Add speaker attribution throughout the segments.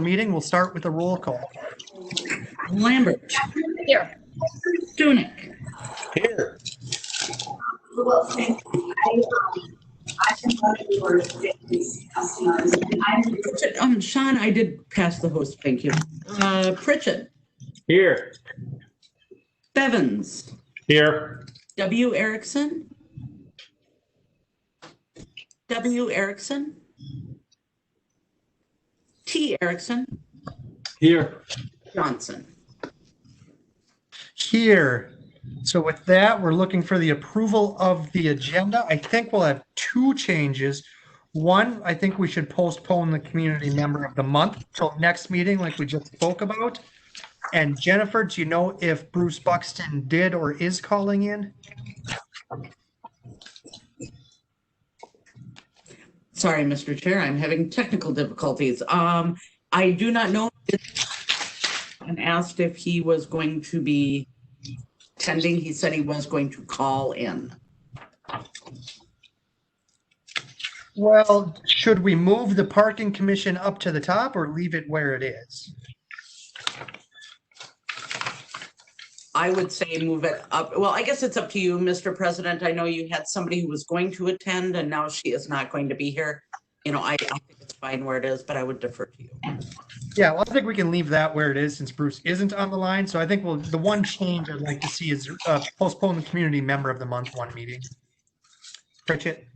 Speaker 1: meeting, we'll start with a roll call.
Speaker 2: Lambert.
Speaker 3: Here.
Speaker 2: Stunek.
Speaker 4: Here.
Speaker 2: Pritchett, um, Sean, I did pass the host, thank you. Uh, Pritchett,
Speaker 4: Here.
Speaker 2: Bevins,
Speaker 4: Here.
Speaker 2: W. Erickson. W. Erickson. T. Erickson,
Speaker 4: Here.
Speaker 2: Johnson.
Speaker 1: Here. So with that, we're looking for the approval of the agenda. I think we'll have two changes. One, I think we should postpone the community member of the month till next meeting, like we just spoke about. And Jennifer, do you know if Bruce Buxton did or is calling in?
Speaker 2: Sorry, Mr. Chair, I'm having technical difficulties. Um, I do not know. And asked if he was going to be attending. He said he was going to call in.
Speaker 1: Well, should we move the parking commission up to the top or leave it where it is?
Speaker 2: I would say move it up. Well, I guess it's up to you, Mr. President. I know you had somebody who was going to attend and now she is not going to be here. You know, I, I think it's fine where it is, but I would defer to you.
Speaker 1: Yeah, well, I think we can leave that where it is since Bruce isn't on the line. So I think we'll, the one change I'd like to see is uh, postpone the community member of the month one meeting. Pritchett,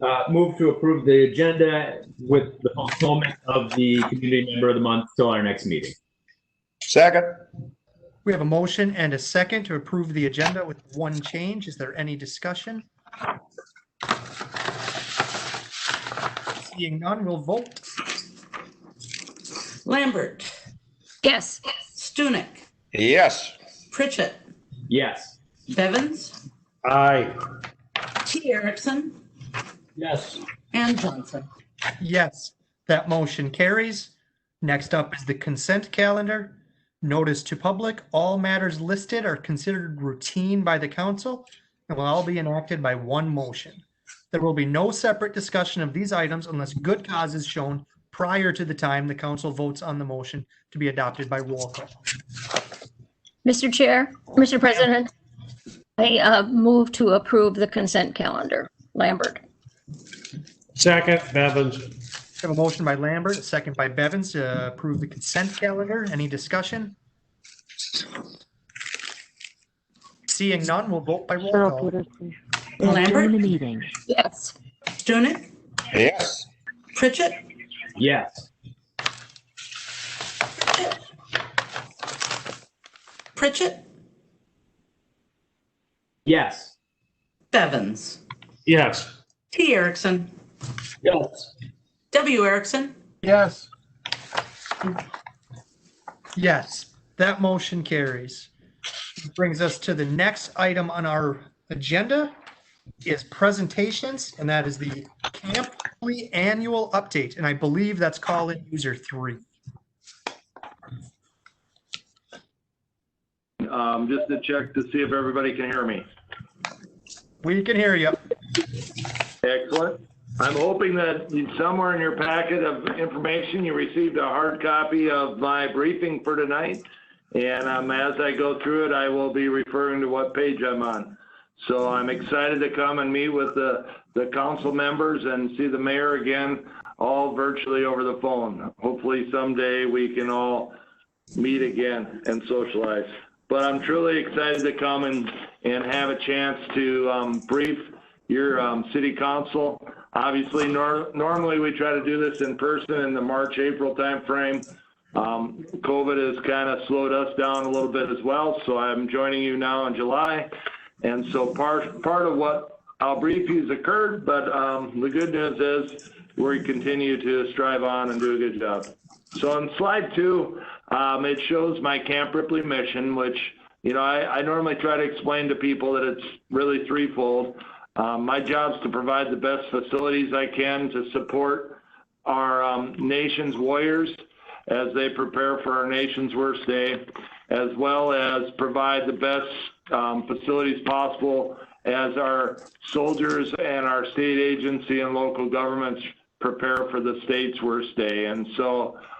Speaker 4: Uh, move to approve the agenda with the fulfillment of the community member of the month till our next meeting.
Speaker 5: Second.
Speaker 1: we have a motion and a second to approve the agenda with one change. Is there any discussion? Seeing none, we'll vote.
Speaker 2: Lambert,
Speaker 3: Yes.
Speaker 2: Stunek,
Speaker 5: Yes.
Speaker 2: Pritchett,
Speaker 4: Yes.
Speaker 2: Bevins,
Speaker 5: Aye.
Speaker 2: T. Erickson,
Speaker 4: Yes.
Speaker 2: and Johnson.
Speaker 1: Yes, that motion carries. Next up is the consent calendar. Notice to public, all matters listed are considered routine by the council and will all be enacted by one motion. There will be no separate discussion of these items unless good cause is shown prior to the time the council votes on the motion to be adopted by roll call.
Speaker 3: Mr. Chair, Mr. President, I uh, move to approve the consent calendar. Lambert.
Speaker 6: Second, Bevins.
Speaker 1: We have a motion by Lambert, a second by Bevins to approve the consent calendar. Any discussion? Seeing none, we'll vote by roll
Speaker 7: Cheryl
Speaker 1: call.
Speaker 7: Peterson. Join the
Speaker 2: Lambert,
Speaker 7: meeting.
Speaker 3: Yes.
Speaker 2: Stunek,
Speaker 5: Yes.
Speaker 2: Pritchett,
Speaker 4: Yes.
Speaker 2: Pritchett,
Speaker 4: Yes.
Speaker 2: Bevins,
Speaker 6: Yes.
Speaker 2: T. Erickson,
Speaker 4: Yes.
Speaker 2: W. Erickson,
Speaker 5: Yes.
Speaker 1: Yes, that motion carries. Brings us to the next item on our agenda is presentations, and that is the Camp Lee Annual Update, and I believe that's call-in user three.
Speaker 8: um, just to check to see if everybody can hear me.
Speaker 1: We can hear you.
Speaker 8: Excellent. I'm hoping that somewhere in your packet of information, you received a hard copy of my briefing for tonight. And um, as I go through it, I will be referring to what page I'm on. So I'm excited to come and meet with the, the council members and see the mayor again, all virtually over the phone. Hopefully someday we can all meet again and socialize. But I'm truly excited to come and, and have a chance to um, brief your um, city council. Obviously, nor- normally we try to do this in person in the March, April timeframe. Um, COVID has kind of slowed us down a little bit as well, so I'm joining you now in July. And so part, part of what I'll brief you has occurred, but um, the good news is we continue to strive on and do a good job. So on slide two, um, it shows my Camp Ripley mission, which, you know, I, I normally try to explain to people that it's really threefold. Um, my job's to provide the best facilities I can to support our um, nation's warriors as they prepare for our nation's worst day, as well as provide the best um, facilities possible as our soldiers and our state agency and local governments prepare for the state's worst day. And so